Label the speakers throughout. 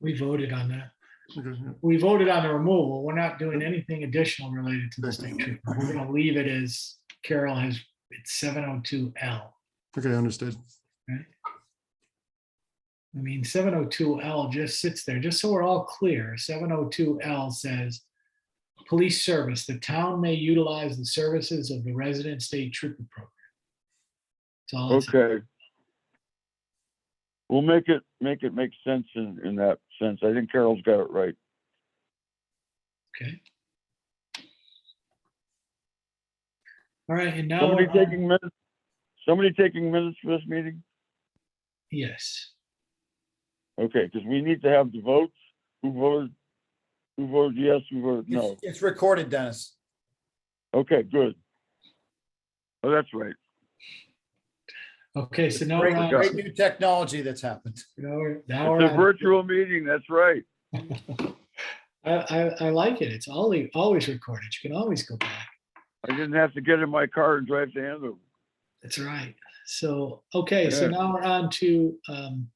Speaker 1: We voted on that.
Speaker 2: Okay, yeah.
Speaker 1: We voted on the removal. We're not doing anything additional related to the state trooper. We're gonna leave it as Carol has, it's seven oh two L.
Speaker 2: Okay, understood.
Speaker 1: I mean, seven oh two L just sits there, just so we're all clear, seven oh two L says. Police service, the town may utilize the services of the resident state trooper program. That's all it says.
Speaker 3: Okay. We'll make it, make it make sense in, in that sense. I think Carol's got it right.
Speaker 1: okay. All right, and now,
Speaker 3: Somebody
Speaker 1: uh,
Speaker 3: taking minutes, somebody taking minutes for this meeting?
Speaker 1: yes,
Speaker 3: Okay, because we need to have the votes. Who voted? Who voted yes, who voted no?
Speaker 4: It's, it's recorded, Dennis.
Speaker 3: Okay, good. Oh, that's right.
Speaker 1: okay, so now. we're
Speaker 4: Great,
Speaker 1: on-
Speaker 4: great new technology that's happened.
Speaker 1: now we're- now we're
Speaker 3: It's a
Speaker 1: on-
Speaker 3: virtual meeting, that's right.
Speaker 1: I, I, I like it. It's always, always recorded. You can always go back.
Speaker 3: I didn't have to get in my car and drive to Andover.
Speaker 1: That's right. So, okay, so
Speaker 3: Yeah.
Speaker 1: now we're on to, um,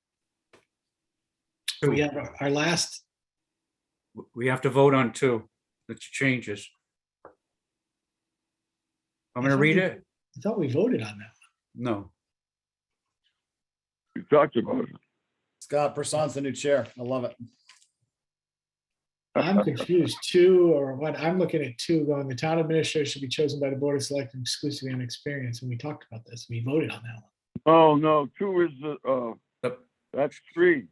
Speaker 1: we have our- our last,
Speaker 5: We have to vote on two, the changes. I'm gonna read it?
Speaker 1: I thought we voted on that.
Speaker 5: No.
Speaker 3: We talked about it.
Speaker 4: Scott Person's the new chair. I love it.
Speaker 1: I'm confused. Two or what? I'm looking at two going, the town administrator should be chosen by the board of selectmen exclusively on experience. And we talked about this. We voted on that one.
Speaker 3: Oh, no, two is the, uh,
Speaker 5: The-
Speaker 3: that's three.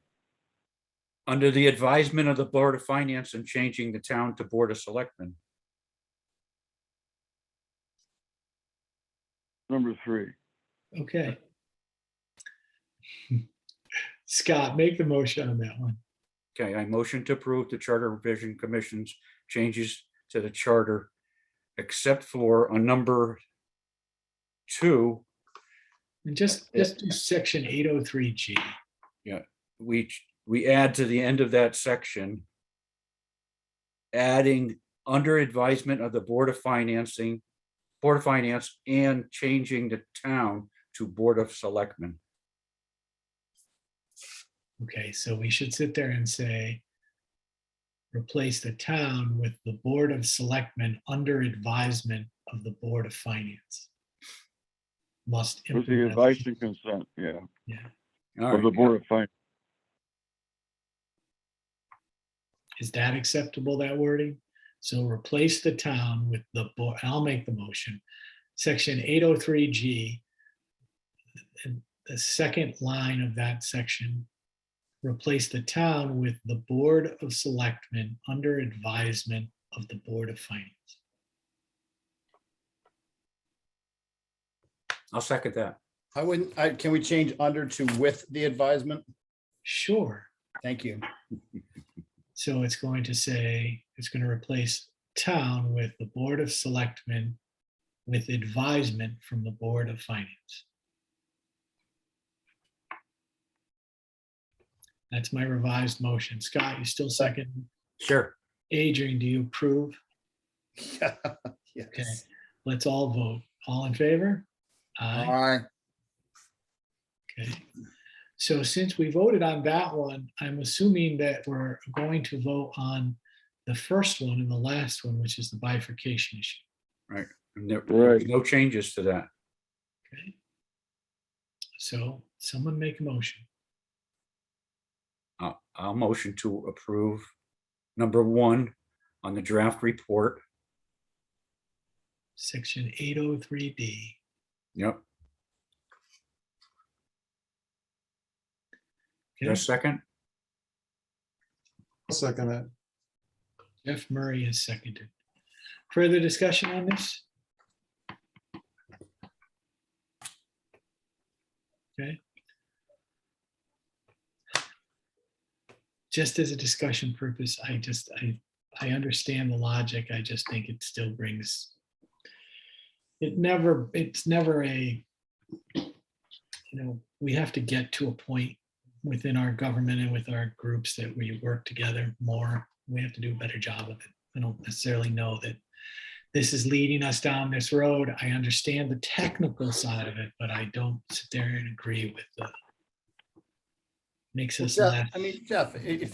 Speaker 5: Under the advisement of the Board of Finance and changing the town to Board of Selectmen.
Speaker 3: Number three.
Speaker 1: Okay. Scott, make the motion on that one.
Speaker 5: Okay, I motion to approve the Charter Revision Commission's changes to the charter, except for a number two,
Speaker 1: And just, just do section eight oh three G.
Speaker 5: we, ch- we add to the end of that section. Adding under advisement of the Board of Financing, Board of Finance and changing the town to Board of Selectmen.
Speaker 1: Okay, so we should sit there and say, replace the town with the Board of Selectmen under advisement of the Board of Finance. Must.
Speaker 3: With the
Speaker 1: implement-
Speaker 3: advice and consent, yeah,
Speaker 5: All
Speaker 3: of the
Speaker 5: right,
Speaker 3: Board of Finance.
Speaker 1: Is that acceptable, that wording? So replace the town with the, board. I'll make the motion. Section 803G. and The second line of that section. Replace the town with the Board of Selectmen under advisement of the Board of Finance.
Speaker 5: I'll second that.
Speaker 4: I wouldn't, I, can we change under to with the advisement?
Speaker 1: Sure.
Speaker 4: Thank you.
Speaker 1: So it's going to say, it's going to replace town with the Board of Selectmen with advisement from the Board of Finance. That's my revised motion. Scott, you still second?
Speaker 5: Sure.
Speaker 1: Adrian, do you approve? Okay,
Speaker 4: Yes.
Speaker 1: let's all vote. All in favor?
Speaker 4: All
Speaker 1: Aye.
Speaker 4: right.
Speaker 1: Okay, so since we voted on that one, I'm assuming that we're going to vote on the first one and the last one, which is the bifurcation issue.
Speaker 5: And there- there's
Speaker 3: Right.
Speaker 5: No changes to that.
Speaker 1: Okay. So someone make a motion.
Speaker 5: I'll, I'll motion to approve number one on the draft report.
Speaker 1: Section 803D
Speaker 5: Yep. Is there a
Speaker 1: Okay.
Speaker 5: second?
Speaker 2: I'll Second that.
Speaker 1: Jeff Murray is seconded. Further discussion on this? Okay. Just as a discussion purpose, I just, I, I understand the logic. I just think it still brings, it never, it's never a, you know, we have to get to a point within our government and with our groups that we work together more. We have to do a better job of it. I don't necessarily know that this is leading us down this road. I understand the technical side of it, but I don't sit there and agree with the makes us
Speaker 4: Jeff,
Speaker 1: laugh.
Speaker 4: I mean, Jeff, i- if